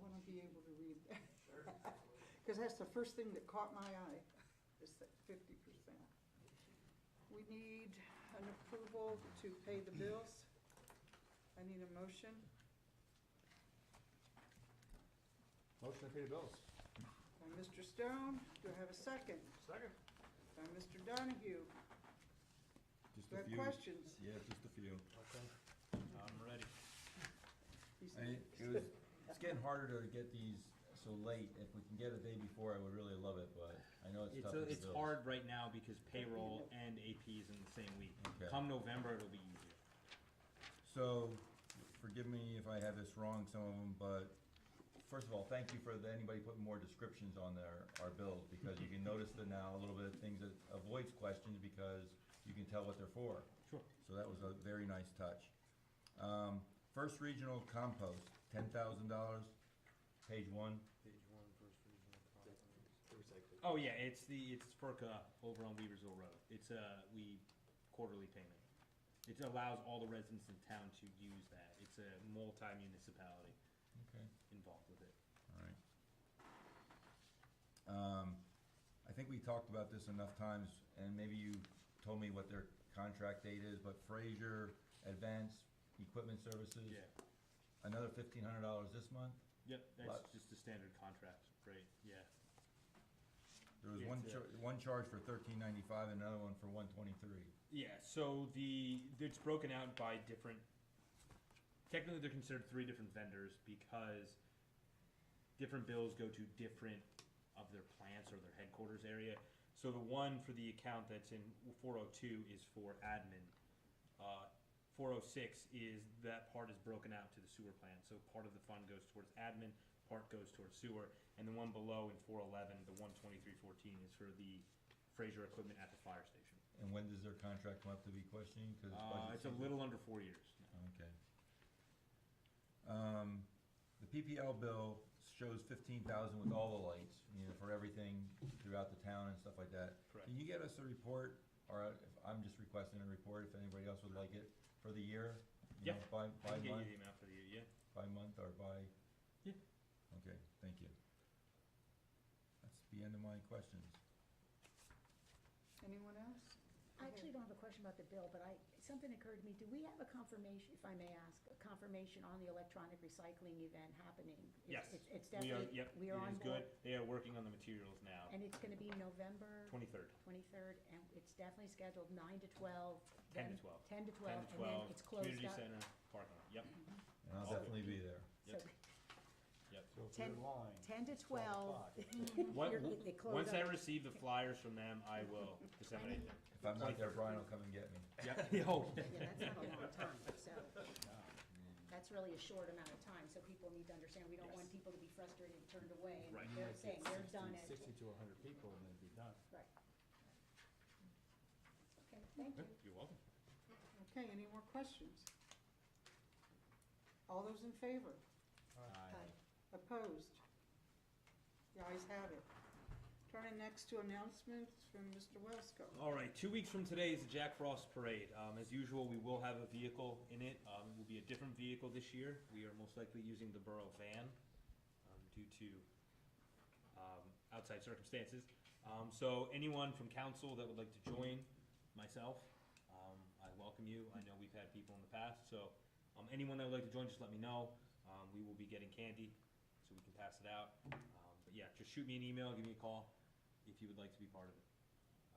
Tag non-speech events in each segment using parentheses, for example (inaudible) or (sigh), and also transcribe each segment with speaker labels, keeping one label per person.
Speaker 1: gonna be able to read that. (laughs)
Speaker 2: Sure, absolutely.
Speaker 1: Because that's the first thing that caught my eye, is that fifty percent. We need an approval to pay the bills. I need a motion.
Speaker 3: Motion to pay the bills.
Speaker 1: By Mr. Stone, do I have a second?
Speaker 2: Second.
Speaker 1: By Mr. Donahue,
Speaker 4: Just
Speaker 1: do I
Speaker 4: a
Speaker 1: have
Speaker 4: few.
Speaker 1: questions?
Speaker 4: Yeah, just a few.
Speaker 2: I'm ready.
Speaker 1: He's-
Speaker 4: I, it was, it's getting harder to get these so late. If we can get a day before, I would really love it, but I know it's
Speaker 5: It's,
Speaker 4: tough.
Speaker 5: a,
Speaker 4: with the
Speaker 5: it's
Speaker 4: bills.
Speaker 5: hard right now because payroll and AP is in the same week.
Speaker 4: Okay.
Speaker 5: Come November, it'll be easier.
Speaker 4: So, forgive me if I have this wrong, some of them, but first of all, thank you for the- anybody putting more descriptions on their, our bills, because you can notice that now, a little bit of things that avoids questions, because you can tell what they're for.
Speaker 5: Sure.
Speaker 4: So that was a very nice touch. Um, First Regional Compost, ten thousand dollars, page one.
Speaker 2: Page one, first regional
Speaker 5: Oh yeah, it's the it's Perka over on Weaversville Road. It's a we quarterly payment. It allows all the residents in town to use that. It's a multi-municipality
Speaker 4: Okay.
Speaker 5: involved with it.
Speaker 4: All right. Um, I think we talked about this enough times, and maybe you told me what their contract date is, but Frazier Advanced Equipment Services.
Speaker 5: Yeah.
Speaker 4: Another fifteen hundred dollars this month.
Speaker 5: Yep. That's
Speaker 4: Lots.
Speaker 5: just a standard contract rate. Yeah.
Speaker 4: There was
Speaker 5: Yeah,
Speaker 4: one,
Speaker 5: it's uh,
Speaker 4: char-
Speaker 5: a-
Speaker 4: one charge for thirteen ninety-five and another one for one twenty-three.
Speaker 5: Yeah, so the it's broken out by different. Technically, they're considered three different vendors because different bills go to different of their plants or their headquarters area. So the one for the account that's in 402 is for admin. Uh, 406 is that part is broken out to the sewer plant. So part of the fund goes towards admin, part goes towards sewer, and the one below in 411, the 12314 is for the Fraser equipment at the fire station.
Speaker 4: And when does their contract come up to be questioning? 'Cause
Speaker 5: Uh,
Speaker 4: budget
Speaker 5: it's a
Speaker 4: season.
Speaker 5: little under four years.
Speaker 4: Okay. Um, the PPL bill shows fifteen thousand with all the lights, you know, for everything throughout the town and stuff like that.
Speaker 5: Correct.
Speaker 4: Can you get us a report, or if, I'm just requesting a report, if anybody else would like it, for the year? you know,
Speaker 5: Yeah.
Speaker 4: By,
Speaker 5: I
Speaker 4: by
Speaker 5: can get you the
Speaker 4: month,
Speaker 5: amount for the year, yeah.
Speaker 4: by month or by?
Speaker 5: Yeah.
Speaker 4: Okay, thank you. That's the end of my questions.
Speaker 1: (laughs) Anyone else?
Speaker 6: I actually don't have a question about the bill, but I, something occurred to me. Do we have a confirmation, if I may ask, a confirmation on the electronic recycling event happening? It's-
Speaker 5: Yes.
Speaker 6: it's- It's
Speaker 5: We are,
Speaker 6: definitely,
Speaker 5: yep,
Speaker 6: we are
Speaker 5: it
Speaker 6: on
Speaker 5: is
Speaker 6: board.
Speaker 5: good. They are working on the materials now.
Speaker 6: And it's going to be November
Speaker 5: Twenty-third.
Speaker 6: 23rd, and it's definitely scheduled 9 to 12.
Speaker 5: 10 to
Speaker 6: then 10 to 12.
Speaker 5: 12. Ten to
Speaker 6: And then
Speaker 5: twelve.
Speaker 6: it's closed
Speaker 5: Community
Speaker 6: up.
Speaker 5: center parking lot. Yep,
Speaker 4: And I'll
Speaker 5: Okay.
Speaker 4: definitely be there.
Speaker 5: yep,
Speaker 6: So
Speaker 5: yep.
Speaker 3: So if you're
Speaker 6: Ten-
Speaker 3: in line.
Speaker 6: 10 to
Speaker 3: it's
Speaker 6: 12.
Speaker 3: 12 (laughs)
Speaker 6: (laughs)
Speaker 3: o'clock.
Speaker 5: What,
Speaker 6: You're- they close
Speaker 5: once I
Speaker 6: up.
Speaker 5: receive the flyers from them, I
Speaker 6: (laughs)
Speaker 5: will disseminate them.
Speaker 4: If I'm not there, Brian will come and get me.
Speaker 5: Yep, (laughs) yo,
Speaker 6: Yeah, that's not a
Speaker 5: (laughs)
Speaker 6: long time, so, that's really a short amount of time, so people need to understand, we don't want
Speaker 5: Yes.
Speaker 6: people to be frustrated and turned away. and
Speaker 5: Right.
Speaker 6: They're saying they're done
Speaker 3: 60 Sixty
Speaker 6: at,
Speaker 3: to hundred people and they'd be done.
Speaker 6: right. Okay, thank you.
Speaker 5: you're welcome.
Speaker 1: Okay, any more questions? All those in favor?
Speaker 6: Aye.
Speaker 1: Opposed? The ayes have it. Turning next to announcements from Mr. Wesco.
Speaker 5: All right, two weeks from today is the Jack Frost Parade. Um, as usual, we will have a vehicle in it. Um, it will be a different vehicle this year. We are most likely using the borough van um, due to um, outside circumstances. Um, so anyone from council that would like to join myself, um, I welcome you. I know we've had people in the past, so um, anyone that would like to join, just let me know. Um, we will be getting candy, so we can pass it out. Um, but yeah, just shoot me an email, give me a call if you would like to be part of it.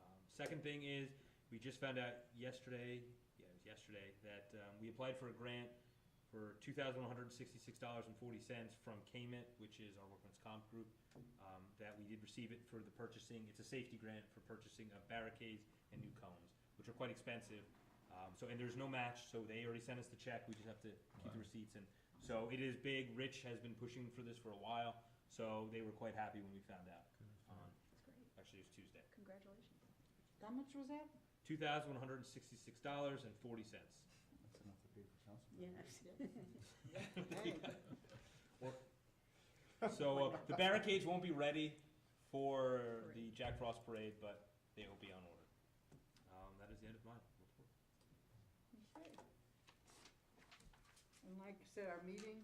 Speaker 5: Um, Second thing is, we just found out yesterday, yeah, it was yesterday, that um, we applied for a grant for two thousand one hundred sixty-six dollars and forty cents from KMIT, which is our workman's comp group, um, that we did receive it for the purchasing, it's a safety grant for purchasing of barricades and new cones, which are quite expensive. Um, So, and there's no match, so they already sent us the check, we just have to keep the
Speaker 4: Wow.
Speaker 5: receipts and, so it is big, Rich has been pushing for this for a while, so they were quite happy when we found out. on-
Speaker 6: That's great.
Speaker 5: Actually, it was Tuesday.
Speaker 6: Congratulations.
Speaker 1: How much was that?
Speaker 5: two thousand one hundred and sixty-six dollars and forty cents.
Speaker 3: That's enough to be for council.
Speaker 6: Yes. (laughs)
Speaker 1: Hey,
Speaker 5: So uh, the barricades won't be ready for the Jack Frost parade, but they will be on order. Um, that is the end of mine.
Speaker 1: okay. And like I said, our meeting